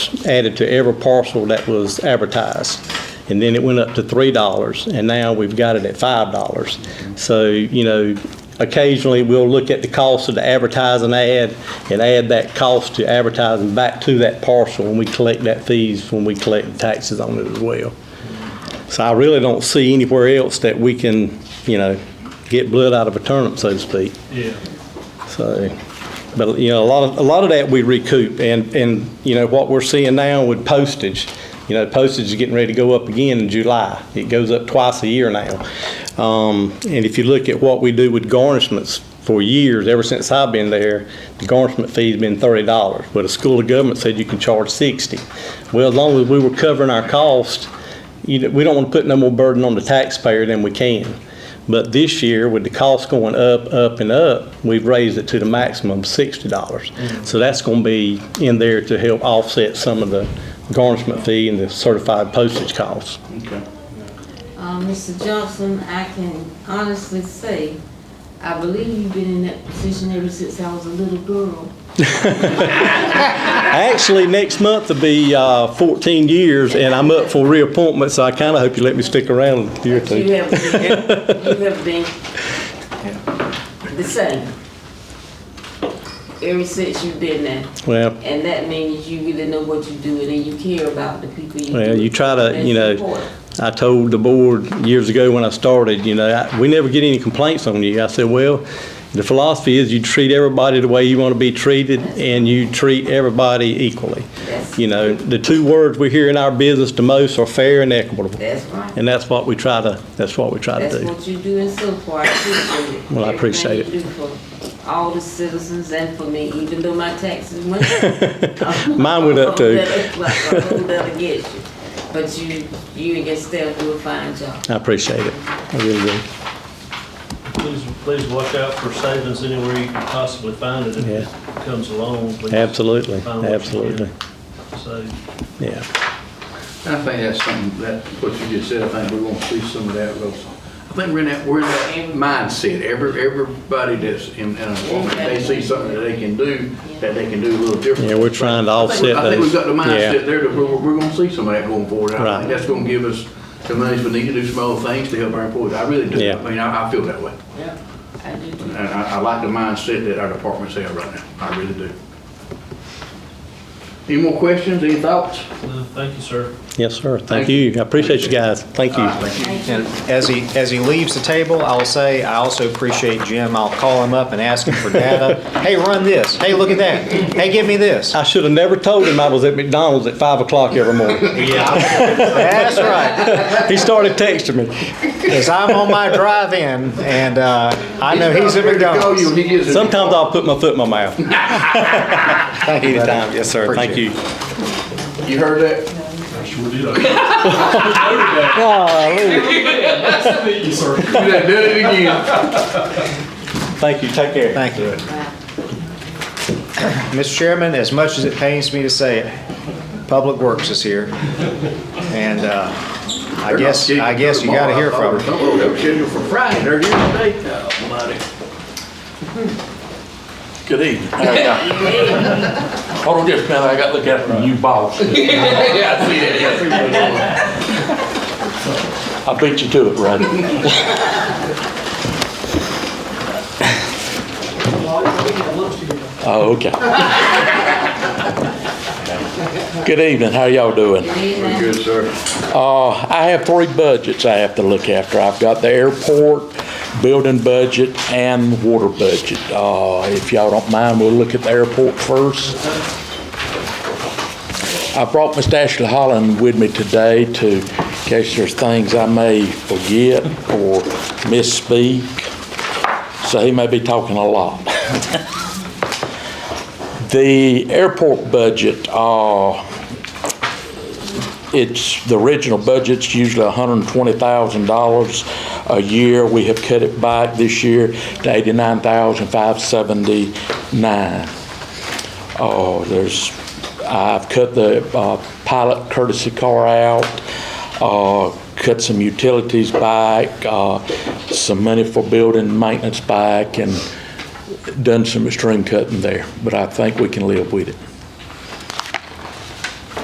added to every parcel that was advertised. And then it went up to $3, and now we've got it at $5. So, you know, occasionally, we'll look at the cost of the advertising ad and add that cost to advertising back to that parcel, and we collect that fees when we collect the taxes on it as well. So I really don't see anywhere else that we can, you know, get blood out of a turnip, so to speak. Yeah. So, but, you know, a lot of, a lot of that we recoup, and, and, you know, what we're seeing now with postage, you know, postage is getting ready to go up again in July. It goes up twice a year now. Um, and if you look at what we do with garnishments for years, ever since I've been there, the garnishment fee's been thirty dollars, but the school of government said you can charge sixty. Well, as long as we were covering our cost, you know, we don't want to put no more burden on the taxpayer than we can. But this year, with the cost going up, up, and up, we've raised it to the maximum of sixty dollars. So that's gonna be in there to help offset some of the garnishment fee and the certified postage costs. Okay. Uh, Mr. Johnson, I can honestly say, I believe you've been in that position ever since I was a little girl. Actually, next month will be, uh, fourteen years, and I'm up for reappointment, so I kinda hope you let me stick around a year or two. You have been, you have been the same. Ever since you've been there. Well, And that means you really know what you're doing and you care about the people you do. Well, you try to, and you know, support. I told the board years ago when I started, you know, I- we never get any complaints on you. I said, well, the philosophy is you treat everybody the way you want to be treated and you treat everybody equally. That's- You know, the two words we hear in our business the most are fair and equitable. That's right. And that's what we try to, that's what we try to That's do. what you do and so far, I appreciate it. Well, I appreciate it. Everything you do for all the citizens and for me, even though my taxes went up. Mine went up too. Like, I hold that against you. But you, you and your staff do a fine job. I appreciate it. I really do. Please, please watch out for savings anywhere you can possibly find it if it comes along. Please Absolutely, find what you can. absolutely. So, Yeah. I think that's something, that, what you just said, I think we're gonna see some of that, Rosa. I think we're in that, we're in that mindset, every, everybody that's in, in employment, they see something that they can do, that they can do a little different. Yeah, we're trying to I think we- offset those. I think we've got the Yeah. mindset there that we're, we're gonna see some of that going forward. I Right. think that's gonna give us the money we need to do some other things to help our employees. I really do. Yeah. I mean, I, I feel that way. Yeah. I do too. And I, I like the mindset that our departments have right now. I really do. Any more questions, any thoughts? no, uh, thank you, sir. Yes, sir. Thank Thank you. I appreciate you guys. Thank All you. right, thank you. And as he, as he leaves the table, I'll say, I also appreciate Jim. I'll call him up and ask him for data. Hey, run this. Hey, look at that. Hey, give me this. I should have never told him I was at McDonald's at five o'clock every morning. That's right. He started texting me. Because I'm on my drive-in and uh, I know he's at Ready to go, McDonald's. you- he is at Sometimes I'll put my foot in my mouth. Thank you, buddy. Anytime, yes, sir. Thank Appreciate you. it. You heard that? I sure did. I- You done done it again. Thank you. Take care. Thank you. Mr. Chairman, as much as it pains me to say it, Public Works is here. And uh, I guess, I guess you gotta hear from her. Something that was scheduled for Friday, they're here today. Oh, buddy. Good evening. Hold on just a minute, I gotta look at the new boss. Yeah, I see that, yeah, I see that. I beat you to it, Rodney. Oh, okay. Good evening, how y'all doing? We're Good, sir. Uh, I have three budgets I have to look after. I've got the airport, building budget, and the water budget. Uh, if y'all don't mind, we'll look at the airport first. I brought Mr. Ashley Holland with me today to, in case there's things I may forget or misspeak. So he may be talking a lot. The airport budget, uh, it's, the original budget's usually $120,000 a year. We have cut it back this year to $89,579. Oh, there's, I've cut the uh, pilot courtesy car out, uh, cut some utilities back, uh, some money for building maintenance back, and done some extreme cutting there, but I think we can live with it.